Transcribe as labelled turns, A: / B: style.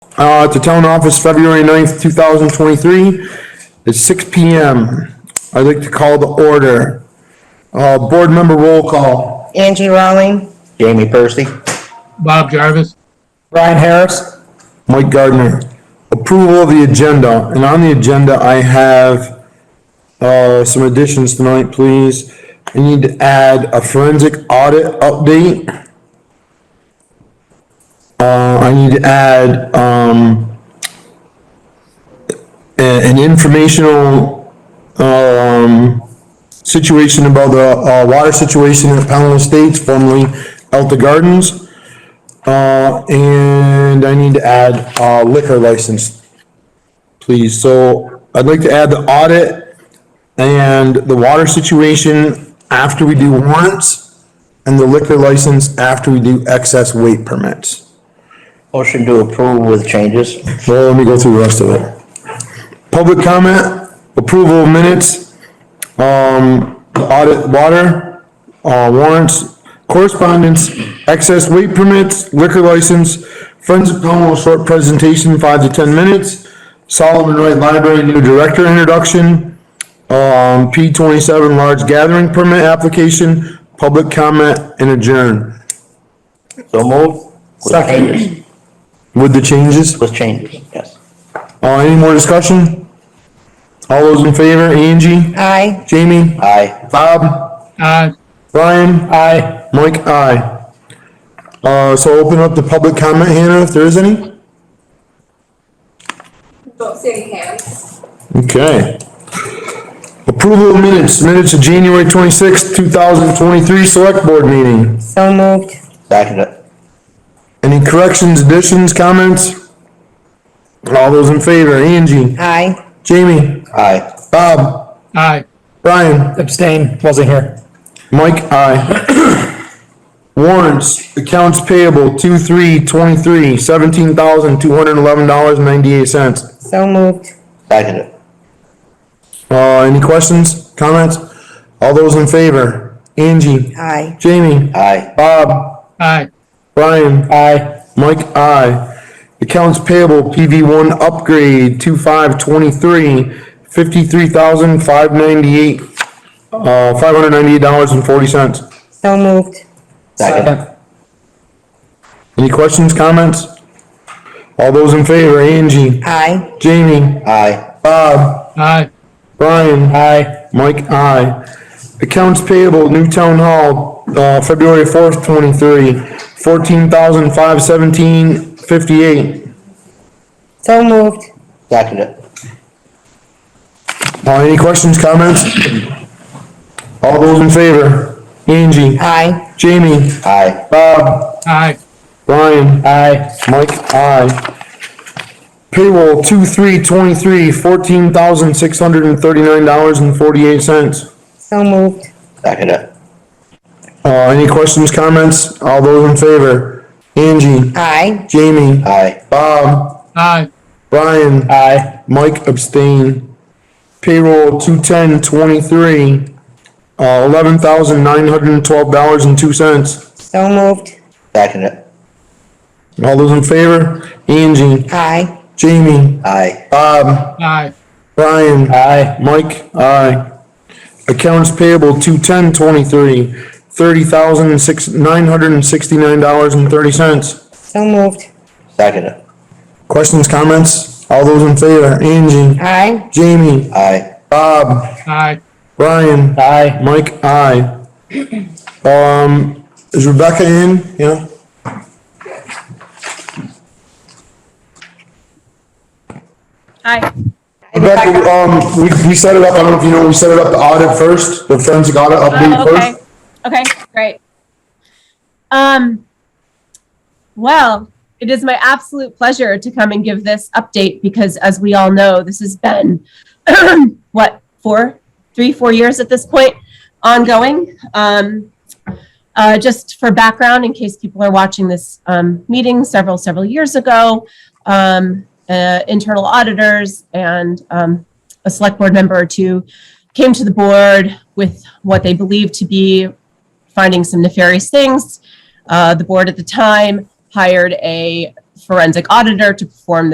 A: uh, at the town office, February 9th, two thousand twenty-three, at six P M. I'd like to call the order. Uh, board member roll call.
B: Angie Rawling,
C: Jamie Percy,
D: Bob Jarvis,
E: Brian Harris,
A: Mike Gardner. Approval of the agenda, and on the agenda, I have, uh, some additions tonight, please. I need to add a forensic audit update. Uh, I need to add, um, a- an informational, um, situation about the, uh, water situation at Pownell Estates, formerly Elta Gardens. Uh, and I need to add, uh, liquor license, please. So I'd like to add the audit and the water situation after we do warrants and the liquor license after we do excess weight permits.
C: motion to approve with changes.
A: Well, let me go through the rest of it. Public comment, approval of minutes, um, audit water, uh, warrants, correspondence, excess weight permits, liquor license, Friends of Pownell short presentation, five to ten minutes, Solomon Wright Library new director introduction, um, P twenty-seven large gathering permit application, public comment and adjourn.
C: So move.
A: Second.
C: changes.
A: With the changes?
C: With changes, yes.
A: Uh, any more discussion? All those in favor, Angie,
B: aye.
A: Jamie,
C: Aye.
A: Bob,
D: aye.
A: Brian,
E: aye.
A: Mike, aye. Uh, so open up the public comment, Hannah, if there is any?
F: Don't see any hands.
A: Okay. Approval of minutes, minutes of January twenty-sixth, two thousand twenty-three Select Board meeting.
B: So moved,
C: Second it.
A: Any corrections, additions, comments? All those in favor, Angie,
B: aye.
A: Jamie,
C: Aye.
A: Bob,
D: Aye.
A: Brian,
E: Abstain, wasn't here.
A: Mike, aye. Warrants, accounts payable, two, three, twenty-three, seventeen thousand, two hundred and eleven dollars, ninety-eight cents.
B: So moved,
C: Second it.
A: Uh, any questions, comments? All those in favor? Angie,
B: aye.
A: Jamie,
C: Aye.
A: Bob,
D: Aye.
A: Brian,
E: Aye,
A: Mike, aye. Accounts payable, PV one upgrade, two, five, twenty-three, fifty-three thousand, five ninety-eight, uh, five hundred ninety-eight dollars and forty cents.
B: So moved,
C: Second.
E: Second.
A: Any questions, comments? All those in favor, Angie,
B: aye.
A: Jamie,
C: Aye.
A: Bob,
D: Aye.
A: Brian,
E: aye,
A: Mike, I. Accounts payable, New Town Hall, uh, February fourth, twenty-three, fourteen thousand five seventeen fifty-eight.
B: So moved,
C: Second it.
A: Uh, any questions, comments? All those in favor, Angie,
B: aye.
A: Jamie,
C: Aye.
A: Bob,
D: Aye.
A: Brian,
E: aye,
A: Mike, I. Payroll two, three, twenty-three, fourteen thousand six hundred and thirty-nine dollars and forty-eight cents.
B: So moved,
C: Second it.
A: Uh, any questions, comments? All those in favor? Angie,
B: aye.
A: Jamie,
C: Aye.
A: Bob,
D: Aye.
A: Brian,
E: aye,
A: Mike abstain. Payroll two ten twenty-three, uh, eleven thousand nine hundred and twelve dollars and two cents.
B: So moved,
C: Second it.
A: All those in favor? Angie,
B: aye.
A: Jamie,
C: Aye.
A: Bob,
D: Aye.
A: Brian,
E: aye,
A: Mike, aye. Accounts payable two ten twenty-three, thirty thousand six, nine hundred and sixty-nine dollars and thirty cents.
B: So moved,
C: Second it.
A: Questions, comments? All those in favor, Angie,
B: aye.
A: Jamie,
C: Aye.
A: Bob,
D: Aye.
A: Brian,
E: aye.
A: Mike, I. Um, is Rebecca in? Yeah?
G: Hi.
A: Rebecca, um, we, we set it up, I don't know if you know, we set it up the audit first, the forensic audit update
G: Oh, okay.
A: first.
G: Okay, great. Um, well, it is my absolute pleasure to come and give this update because as we all know, this has been what, four, three, four years at this point, ongoing. Um, uh, just for background, in case people are watching this um, meeting several, several years ago, um, uh, internal auditors and um, a select board member or two came to the board with what they believed to be finding some nefarious things. Uh, the board at the time hired a forensic auditor to perform